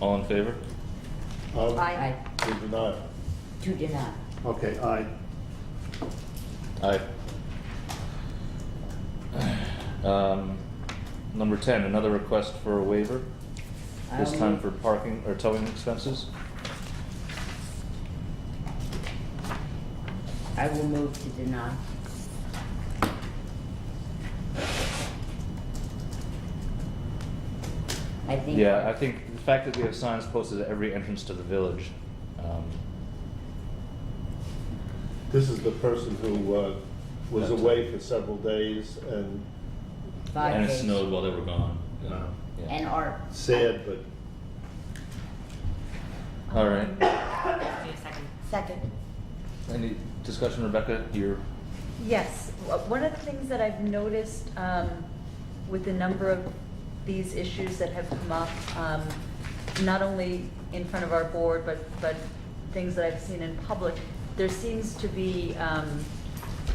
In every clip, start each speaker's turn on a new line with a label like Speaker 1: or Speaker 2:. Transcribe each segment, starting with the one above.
Speaker 1: All in favor?
Speaker 2: Of-
Speaker 3: Aye.
Speaker 2: To deny.
Speaker 3: To deny.
Speaker 2: Okay, aye.
Speaker 1: Aye. Um, Number 10, another request for a waiver, this
Speaker 3: I'll
Speaker 1: time
Speaker 3: move-
Speaker 1: for parking or towing expenses.
Speaker 3: I will move to deny. I think.
Speaker 1: Yeah, I think the fact that we have signs posted at every entrance to the village, um,
Speaker 2: This is the person who uh, was
Speaker 1: That's-
Speaker 2: away for several days and
Speaker 3: Five
Speaker 1: and it
Speaker 3: days.
Speaker 1: snowed while they were gone. you know, yeah.
Speaker 3: And art.
Speaker 2: sad, but
Speaker 1: All right,
Speaker 4: Wait a second.
Speaker 5: Second.
Speaker 1: any discussion, Rebecca? You're,
Speaker 5: Yes, W- one of the things that I've noticed um, with the number of these issues that have come up, um, not only in front of our board, but, but things that I've seen in public, there seems to be um,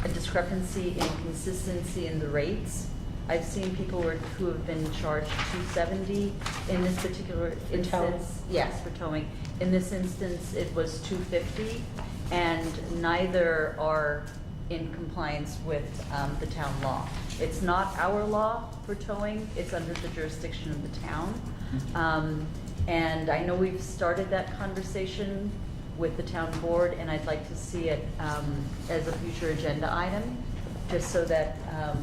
Speaker 5: a discrepancy in consistency in the rates. I've seen people who are- who have been charged 270 in this particular
Speaker 3: For towing.
Speaker 5: instance. Yes, for towing. In this instance, it was 250, and neither are in compliance with um, the town law. It's not our law for towing, it's under the jurisdiction of the town. Um, And I know we've started that conversation with the town board, and I'd like to see it um, as a future agenda item, just so that um,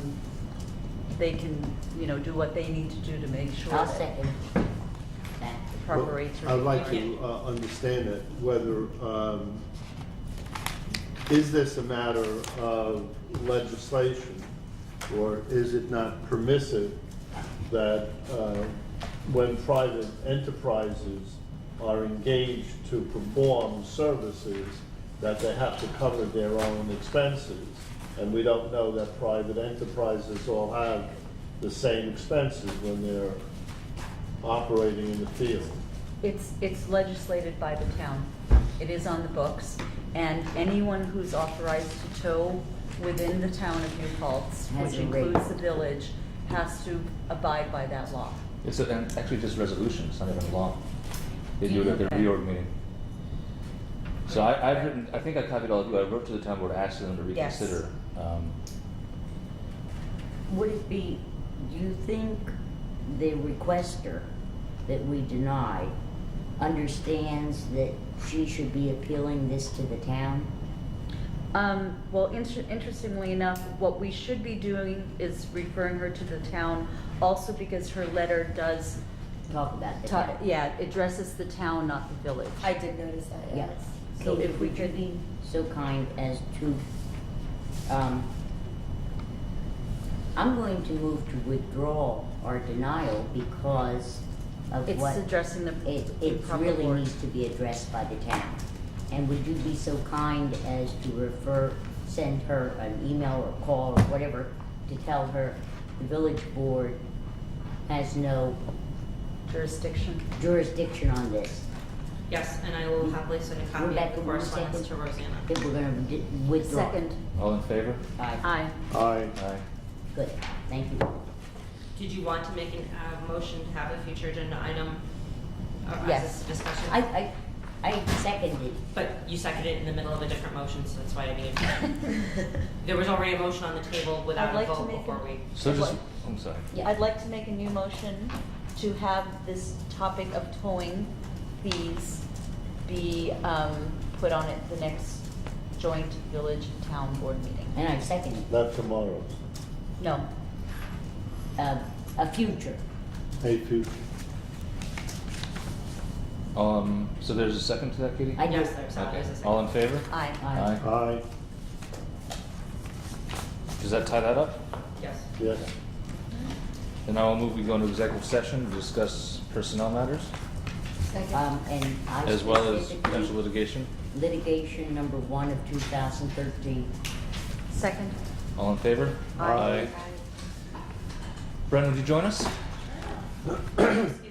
Speaker 5: they can, you know, do what they need to do to make sure
Speaker 3: I'll
Speaker 5: that
Speaker 3: second that.
Speaker 5: the proper rates are.
Speaker 2: I'd like
Speaker 5: being
Speaker 2: to uh, understand it, whether, um, is this a matter of legislation? Or is it not permissive that uh, when private enterprises are engaged to perform services, that they have to cover their own expenses? And we don't know that private enterprises all have the same expenses when they're operating in the field.
Speaker 5: It's, it's legislated by the town. It is on the books. And anyone who's authorized to tow within the town of New Paltz,
Speaker 3: Has
Speaker 5: which
Speaker 3: a rate.
Speaker 5: includes the village, has to abide by that law.
Speaker 1: it's a- and actually just resolution, it's not even law. They do it at the
Speaker 5: Okay.
Speaker 1: reorg meeting. So I, I've written, I think I copied all of you, I wrote to the town board asking them to
Speaker 5: Yes.
Speaker 1: reconsider. um,
Speaker 3: Would it be, do you think the requester that we deny understands that she should be appealing this to the town?
Speaker 5: Um, well, inter- interestingly enough, what we should be doing is referring her to the town also because her letter does,
Speaker 3: Talk about the
Speaker 5: ta-
Speaker 3: town.
Speaker 5: yeah, addresses the town, not the village.
Speaker 4: I did notice that,
Speaker 3: Yeah.
Speaker 4: yes.
Speaker 5: So
Speaker 3: Katie,
Speaker 5: if we
Speaker 3: would you
Speaker 5: could-
Speaker 3: be so kind as to, um, I'm going to move to withdraw our denial because of
Speaker 5: It's
Speaker 3: what.
Speaker 5: addressing the-
Speaker 3: It,
Speaker 5: the
Speaker 3: it
Speaker 5: proper
Speaker 3: really
Speaker 5: board.
Speaker 3: needs to be addressed by the town. And would you be so kind as to refer, send her an email or call or whatever to tell her the village board has no
Speaker 5: Jurisdiction.
Speaker 3: jurisdiction on this?
Speaker 4: Yes, and I will happily send a copy of
Speaker 3: Rebecca,
Speaker 4: the
Speaker 3: one
Speaker 4: correspondence to
Speaker 3: second.
Speaker 4: Rosanna.
Speaker 3: That we're gonna d- withdraw.
Speaker 5: Second,
Speaker 1: All in favor?
Speaker 3: Aye.
Speaker 5: aye.
Speaker 2: Aye.
Speaker 1: Aye.
Speaker 3: Good, thank you.
Speaker 4: Did you want to make an, uh motion to have a future agenda item uh,
Speaker 5: Yes.
Speaker 4: as a discussion?
Speaker 3: I, I, I seconded,
Speaker 4: But you seconded it in the middle of a different motion, so that's why I mean, there was already a motion on the table without
Speaker 5: I'd
Speaker 4: a
Speaker 5: like to
Speaker 4: vote
Speaker 5: make
Speaker 4: before
Speaker 5: a-
Speaker 4: we.
Speaker 1: So just,
Speaker 5: What?
Speaker 1: I'm sorry.
Speaker 3: yeah,
Speaker 5: I'd like to make a new motion to have this topic of towing fees be um, put on at the next joint village and town board meeting.
Speaker 3: and I seconded,
Speaker 2: Not tomorrow,
Speaker 5: No,
Speaker 3: uh, a future,
Speaker 2: Hey, future.
Speaker 1: Um, so there's a second to that, Katie?
Speaker 3: I do.
Speaker 4: Yes, there's, uh,
Speaker 1: Okay.
Speaker 4: there's a second.
Speaker 1: All in favor?
Speaker 5: aye.
Speaker 3: Aye.
Speaker 2: Aye,
Speaker 1: Does that tie that up?
Speaker 4: Yes.
Speaker 2: yes.
Speaker 1: Then I will move, we go into executive session to discuss personnel matters
Speaker 3: Um, and I
Speaker 1: as well as potential
Speaker 3: specifically-
Speaker 1: litigation.
Speaker 3: litigation number one of two thousand thirteen.
Speaker 5: Second.
Speaker 1: All in favor?
Speaker 2: Aye.
Speaker 1: Brendan, would you join us?
Speaker 4: Excuse